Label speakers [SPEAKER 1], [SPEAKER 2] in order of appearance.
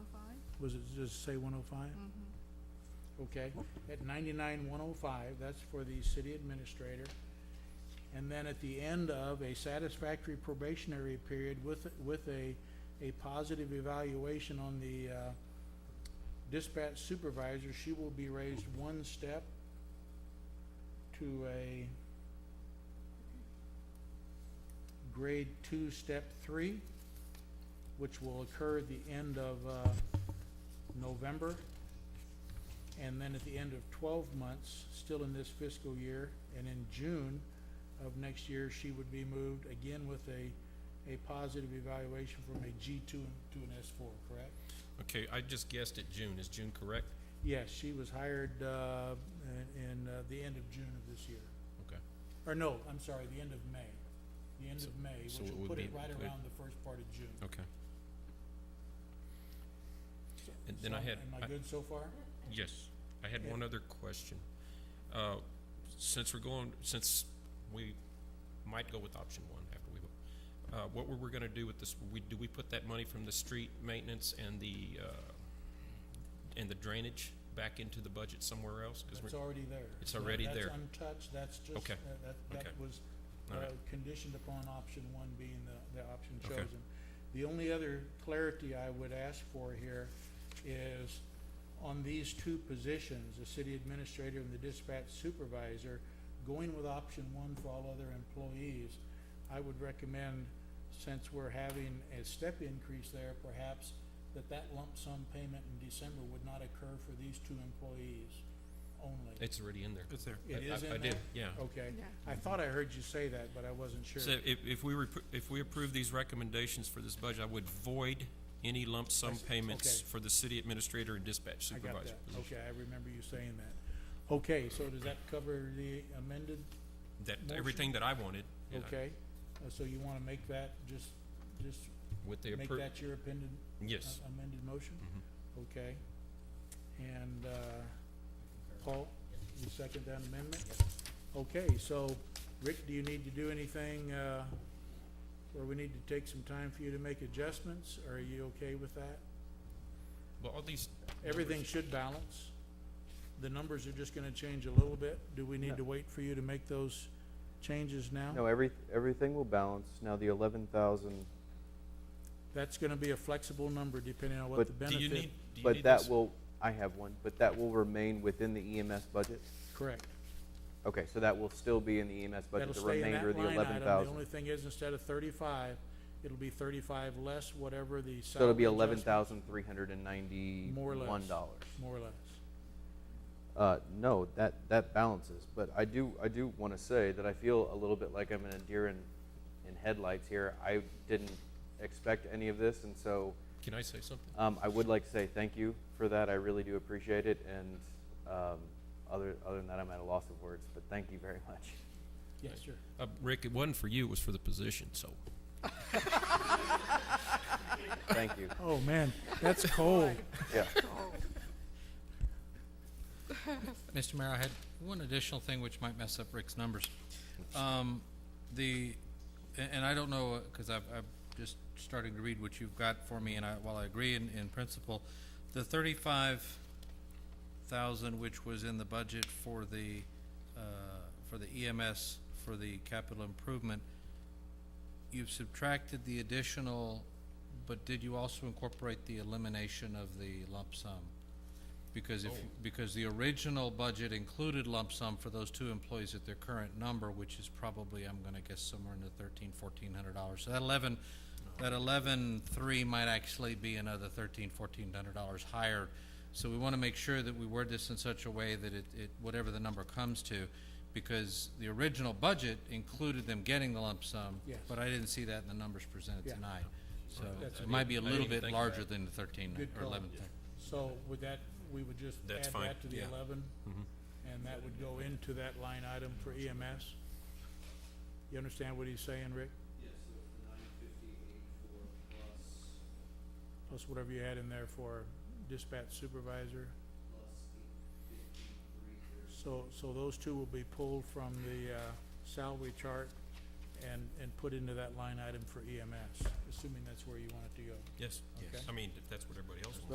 [SPEAKER 1] was it just say one oh five? Okay, at ninety-nine one oh five, that's for the city administrator. And then at the end of a satisfactory probationary period with, with a, a positive evaluation on the, uh, dispatch supervisor, she will be raised one step to a grade two, step three, which will occur at the end of, uh, November. And then at the end of twelve months, still in this fiscal year, and in June of next year, she would be moved again with a, a positive evaluation from a G two to an S four, correct?
[SPEAKER 2] Okay, I just guessed at June. Is June correct?
[SPEAKER 1] Yes, she was hired, uh, in, in uh, the end of June of this year.
[SPEAKER 2] Okay.
[SPEAKER 1] Or no, I'm sorry, the end of May. The end of May,
[SPEAKER 2] so
[SPEAKER 1] which
[SPEAKER 2] it
[SPEAKER 1] will
[SPEAKER 2] would
[SPEAKER 1] put
[SPEAKER 2] be
[SPEAKER 1] it right
[SPEAKER 2] included.
[SPEAKER 1] around the first part of June.
[SPEAKER 2] Okay.
[SPEAKER 1] So-
[SPEAKER 2] And then I
[SPEAKER 1] so
[SPEAKER 2] had-
[SPEAKER 1] Am I
[SPEAKER 2] I-
[SPEAKER 1] good so far?
[SPEAKER 2] Yes. I had
[SPEAKER 1] Yeah.
[SPEAKER 2] one other question. Uh, since we're going, since we might go with option one after we, vote, uh, what were we gonna do with this? We, do we put that money from the street maintenance and the, uh, and the drainage back into the budget somewhere else? 'Cause
[SPEAKER 1] It's
[SPEAKER 2] we're-
[SPEAKER 1] already there.
[SPEAKER 2] It's already there.
[SPEAKER 1] That's untouched, that's just,
[SPEAKER 2] Okay.
[SPEAKER 1] that, that, that
[SPEAKER 2] Okay.
[SPEAKER 1] was, uh,
[SPEAKER 2] All right.
[SPEAKER 1] conditioned upon option one being the, the option
[SPEAKER 2] Okay.
[SPEAKER 1] chosen. The only other clarity I would ask for here is on these two positions, the city administrator and the dispatch supervisor, going with option one for all other employees, I would recommend, since we're having a step increase there, perhaps that that lump sum payment in December would not occur for these two employees only.
[SPEAKER 2] It's already in there.
[SPEAKER 3] It's there.
[SPEAKER 1] It
[SPEAKER 2] I-
[SPEAKER 1] is
[SPEAKER 2] I- I
[SPEAKER 1] in
[SPEAKER 2] did,
[SPEAKER 1] there?
[SPEAKER 2] Yeah.
[SPEAKER 1] Okay,
[SPEAKER 4] Yeah.
[SPEAKER 1] I thought I heard you say that, but I wasn't sure.
[SPEAKER 2] So if, if we, repro- if we approve these recommendations for this budget, I would void any lump
[SPEAKER 1] I
[SPEAKER 2] sum
[SPEAKER 1] see.
[SPEAKER 2] payments
[SPEAKER 1] Okay.
[SPEAKER 2] for the city administrator and dispatch
[SPEAKER 1] I got that,
[SPEAKER 2] supervisor position.
[SPEAKER 1] okay, I remember you saying that. Okay, so does that cover the amended,
[SPEAKER 2] That,
[SPEAKER 1] Motion.
[SPEAKER 2] everything that I wanted, you know,
[SPEAKER 1] okay? Uh, So you wanna make that, just, just
[SPEAKER 2] with the
[SPEAKER 1] make
[SPEAKER 2] appro,
[SPEAKER 1] that Uh, your appended,
[SPEAKER 2] yes, Mm-hmm.
[SPEAKER 1] amended motion? Okay. And, uh, Paul, you second that amendment? Okay, so, Rick, do you need to do anything, uh, or we need to take some time for you to make adjustments, or are you okay with that?
[SPEAKER 2] well, all these.
[SPEAKER 1] Everything should balance. The numbers are just gonna change a little bit. Do we
[SPEAKER 5] No.
[SPEAKER 1] need to wait for you to make those changes
[SPEAKER 5] No,
[SPEAKER 1] now?
[SPEAKER 5] every, everything will balance. Now, the eleven thousand,
[SPEAKER 1] That's gonna be a flexible number depending on what
[SPEAKER 5] But
[SPEAKER 1] the
[SPEAKER 2] numbers- Do you
[SPEAKER 1] benefit.
[SPEAKER 2] need, do you
[SPEAKER 5] but
[SPEAKER 2] need
[SPEAKER 5] that
[SPEAKER 2] this?
[SPEAKER 5] will, I have one, but that will remain within the EMS budget?
[SPEAKER 1] Correct.
[SPEAKER 5] Okay, so that will still be in the EMS
[SPEAKER 1] That'll
[SPEAKER 5] budget, the
[SPEAKER 1] stay in that
[SPEAKER 5] remainder of the
[SPEAKER 1] line
[SPEAKER 5] eleven
[SPEAKER 1] item. The only
[SPEAKER 5] thousand?
[SPEAKER 1] thing is, instead of thirty-five, it'll be thirty-five less whatever the salary
[SPEAKER 5] So it'll be eleven
[SPEAKER 1] adjustment-
[SPEAKER 5] thousand three hundred and
[SPEAKER 1] More or
[SPEAKER 5] ninety-one
[SPEAKER 1] less.
[SPEAKER 5] dollars.
[SPEAKER 1] More or less.
[SPEAKER 5] Uh, no, that, that balances, but I do, I do wanna say that I feel a little bit like I'm in a deer in, in headlights here. I didn't expect any of this, and so,
[SPEAKER 2] Can I say something?
[SPEAKER 5] Um, I would like to say thank you for that. I really do appreciate it. And um, other, other than that, I'm at a loss of words, but thank you very much.
[SPEAKER 1] Yes, sir.
[SPEAKER 2] Uh, Rick, it wasn't for you, it was for the position, so.
[SPEAKER 5] Thank you.
[SPEAKER 1] Oh, man, that's cold.
[SPEAKER 5] Yeah.
[SPEAKER 6] Mr. Mayor, I had one additional thing which might mess up Rick's numbers. Um, the, a- and I don't know, because I've, I've just starting to read what you've got for me, and I, while I agree in, in principle, the thirty-five thousand which was in the budget for the, uh, for the EMS, for the capital improvement, you've subtracted the additional, but did you also incorporate the elimination of the lump sum? Because
[SPEAKER 1] Oh.
[SPEAKER 6] if, because the original budget included lump sum for those two employees at their current number, which is probably, I'm gonna guess, somewhere in the thirteen, fourteen hundred dollars. So that eleven, that eleven-three might actually be another thirteen, fourteen hundred dollars higher. So we wanna make sure that we word this in such a way that it, it, whatever the number comes to, because the original budget included them getting the lump sum.
[SPEAKER 1] Yes.
[SPEAKER 6] But I didn't see that in the numbers presented
[SPEAKER 1] Yeah.
[SPEAKER 6] tonight. So
[SPEAKER 1] That's
[SPEAKER 6] it might be a
[SPEAKER 2] I didn't
[SPEAKER 6] little
[SPEAKER 2] even
[SPEAKER 6] bit
[SPEAKER 2] think of
[SPEAKER 6] larger
[SPEAKER 2] that.
[SPEAKER 6] than the thirteen
[SPEAKER 1] Good
[SPEAKER 6] or
[SPEAKER 1] call.
[SPEAKER 6] eleven.
[SPEAKER 1] So with that, we would just add
[SPEAKER 2] That's fine,
[SPEAKER 1] that to the
[SPEAKER 2] yeah. Mm-hmm.
[SPEAKER 1] eleven? And that would go into that line item for EMS? You understand what he's saying, Rick? Plus whatever you had in there for dispatch supervisor? So, so those two will be pulled from the, uh, salary chart and, and put into that line item for EMS, E assuming that's where you want it to go.
[SPEAKER 2] Yes.
[SPEAKER 1] Okay.
[SPEAKER 2] I mean, if that's what everybody else wants.